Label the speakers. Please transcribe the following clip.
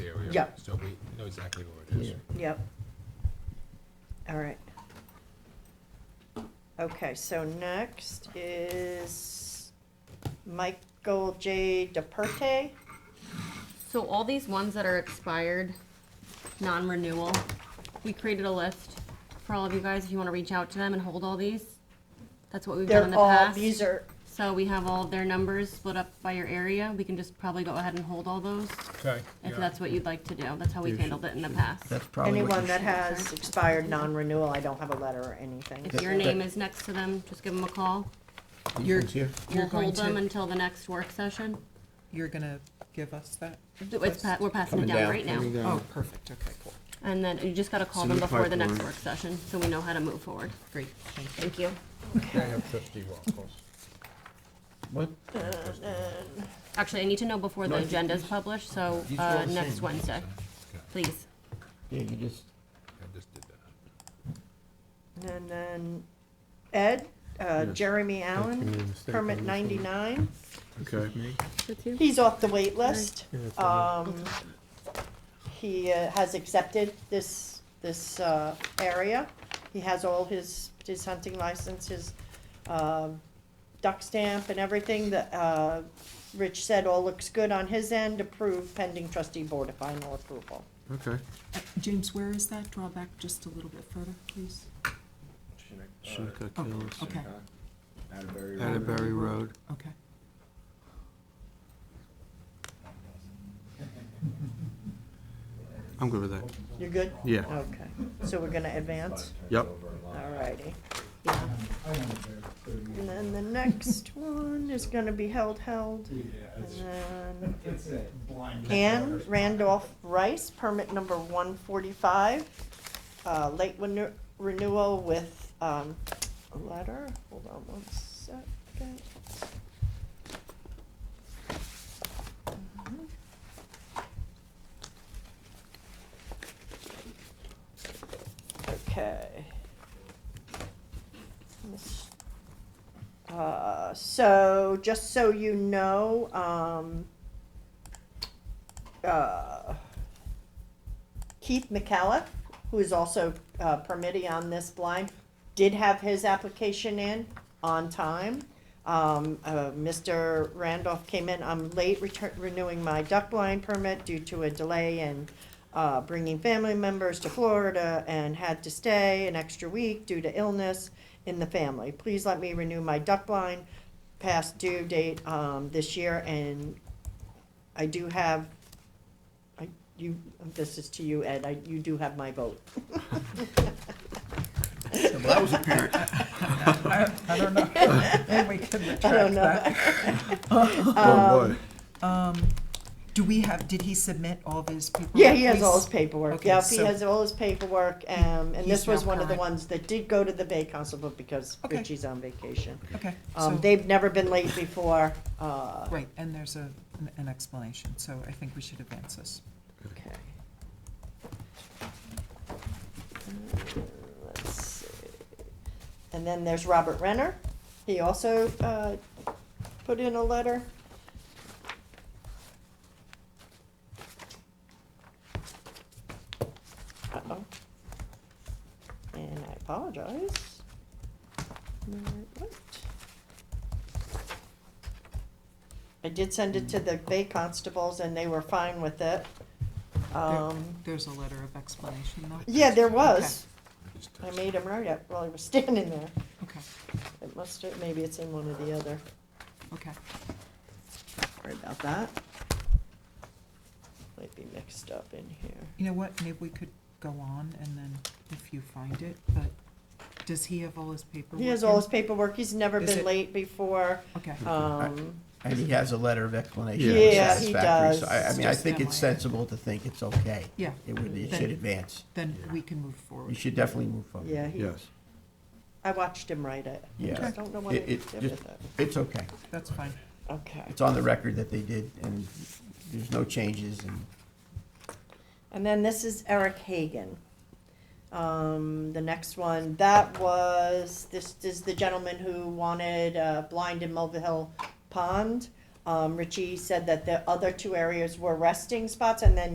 Speaker 1: whatever.
Speaker 2: Yep.
Speaker 1: So we know exactly what it is.
Speaker 2: Yep. All right. Okay, so next is Michael J. DePerte.
Speaker 3: So all these ones that are expired, non-renewal, we created a list for all of you guys if you want to reach out to them and hold all these. That's what we've done in
Speaker 2: They're
Speaker 3: the
Speaker 2: all,
Speaker 3: past.
Speaker 2: these are,
Speaker 3: So we have all of their numbers split up by your area. We can just probably go ahead and hold all those
Speaker 1: Okay.
Speaker 3: if that's what you'd like to do. That's how we've handled it in the past.
Speaker 4: That's
Speaker 5: Oh,
Speaker 4: probably what
Speaker 2: anyone
Speaker 4: you
Speaker 2: that
Speaker 4: should.
Speaker 2: has expired non-renewal, I don't have a letter or anything.
Speaker 3: If your name is next to them, just give them a call.
Speaker 5: You're,
Speaker 4: Here.
Speaker 3: We'll
Speaker 5: you're going
Speaker 3: hold them
Speaker 5: to,
Speaker 3: until the next work session.
Speaker 5: you're gonna give us that?
Speaker 3: It's, pa- we're passing it
Speaker 6: Coming
Speaker 3: down
Speaker 6: down,
Speaker 3: right now.
Speaker 6: coming down.
Speaker 5: Oh, perfect, okay, cool,
Speaker 3: And then you just gotta call
Speaker 6: It's
Speaker 3: them
Speaker 6: in the
Speaker 3: before the next
Speaker 6: pipeline.
Speaker 3: work session, so we know how to move forward.
Speaker 5: great, thank you.
Speaker 3: Thank you.
Speaker 1: I have trustee Waffles.
Speaker 4: What?
Speaker 3: Uh, Actually, I need to know before the
Speaker 4: No, I think
Speaker 3: agenda is
Speaker 4: these-
Speaker 3: published, so,
Speaker 4: these are all
Speaker 3: uh,
Speaker 4: the
Speaker 3: next
Speaker 4: same.
Speaker 3: Wednesday,
Speaker 1: Okay,
Speaker 3: please.
Speaker 4: Yeah, you just,
Speaker 1: I just did that.
Speaker 2: And then Ed, uh, Jeremy Allen, permit ninety-nine.
Speaker 6: Okay. Me?
Speaker 2: He's off the wait list. Um, he uh, has accepted this, this, uh, area. He has all his, his hunting license, his, um, duck stamp and everything that, uh, Rich said all looks good on his end, approved pending trustee board of final approval.
Speaker 6: Okay.
Speaker 5: Uh, James, where is that? Draw back just a little bit further, please.
Speaker 6: Shinnecock
Speaker 5: Oh,
Speaker 6: Hills,
Speaker 5: okay,
Speaker 6: Atterbury Road.
Speaker 5: okay.
Speaker 6: I'm good with that.
Speaker 2: You're good?
Speaker 6: Yeah.
Speaker 2: Okay, so we're gonna advance?
Speaker 6: Yep.
Speaker 2: Alrighty.
Speaker 3: Yeah.
Speaker 2: And then the next one is gonna be held, held, and then. Ann Randolph Rice, permit number one forty-five, uh, late renew- renewal with, um, a letter, hold on one second. Mhm. Okay. Miss- Uh, so, just so you know, um, uh, Keith McCallum, who is also uh, permittee on this blind, did have his application in on time. Um, uh, Mr. Randolph came in, I'm late return, renewing my duck blind permit due to a delay in uh, bringing family members to Florida and had to stay an extra week due to illness in the family. Please let me renew my duck blind past due date, um, this year and I do have, I, you, this is to you, Ed, I, you do have my vote.
Speaker 4: that was apparent.
Speaker 5: I, I don't know, maybe we can retract
Speaker 2: I don't
Speaker 5: that. Um,
Speaker 2: know.
Speaker 6: Oh,
Speaker 5: Do we have, did he submit all of his paperwork?
Speaker 2: Yeah, he has all his
Speaker 5: please?
Speaker 2: paperwork,
Speaker 5: Okay,
Speaker 2: yep, he
Speaker 5: so-
Speaker 2: has all his paperwork, um, and this
Speaker 5: He's
Speaker 2: was
Speaker 5: now
Speaker 2: one of the
Speaker 5: current.
Speaker 2: ones that did go to the Bay Council, but because
Speaker 5: Okay.
Speaker 2: Richie's on vacation.
Speaker 5: Okay, so,
Speaker 2: Um, they've never been late before, uh,
Speaker 5: right, and there's a, an- an explanation, so I think we should advance this.
Speaker 2: okay. Mm, Let's see. And then there's Robert Renner, he also, uh, put in a letter. Uh-oh. And I apologize. Alright, what? I did send it to the Bay Constables and they were fine with it. Um,
Speaker 5: There's a letter of explanation though?
Speaker 2: yeah, there was.
Speaker 1: Just
Speaker 2: I
Speaker 1: touch-
Speaker 2: made him write it while he was standing there.
Speaker 5: Okay,
Speaker 2: It must, have- maybe it's in one or the other.
Speaker 5: okay.
Speaker 2: Sorry about that. Might be mixed up in here.
Speaker 5: You know what, maybe we could go on and then if you find it, but does he have all his paperwork?
Speaker 2: He has all
Speaker 5: in?
Speaker 2: his paperwork, he's never
Speaker 5: Is
Speaker 2: been
Speaker 5: it-
Speaker 2: late before,
Speaker 5: Okay,
Speaker 2: um,
Speaker 4: And he has a letter of explanation.
Speaker 6: Yeah.
Speaker 4: that's
Speaker 2: Yeah, he
Speaker 4: satisfactory, So I, I
Speaker 2: does.
Speaker 4: mean, I
Speaker 5: Just
Speaker 4: think
Speaker 5: that
Speaker 4: it's
Speaker 5: way.
Speaker 4: sensible to think it's okay.
Speaker 5: yeah,
Speaker 4: It would, it should advance.
Speaker 5: then
Speaker 1: Yeah.
Speaker 5: we can move
Speaker 4: You
Speaker 5: forward.
Speaker 4: should definitely move forward.
Speaker 2: yeah, he,
Speaker 6: Yes.
Speaker 2: I watched him write it. I
Speaker 4: Yeah.
Speaker 2: just don't know what he
Speaker 4: It-
Speaker 2: did
Speaker 4: it
Speaker 2: with
Speaker 4: just-
Speaker 2: it.
Speaker 4: It's okay.
Speaker 5: That's fine.
Speaker 2: Okay,
Speaker 4: It's on the record that they did, and there's no changes, and
Speaker 2: and then this is Eric Hagan. Um, the next one, that was, this is the gentleman who wanted, uh, blind in Mulvihill Pond. Um, Richie said that the other two areas were resting spots, and then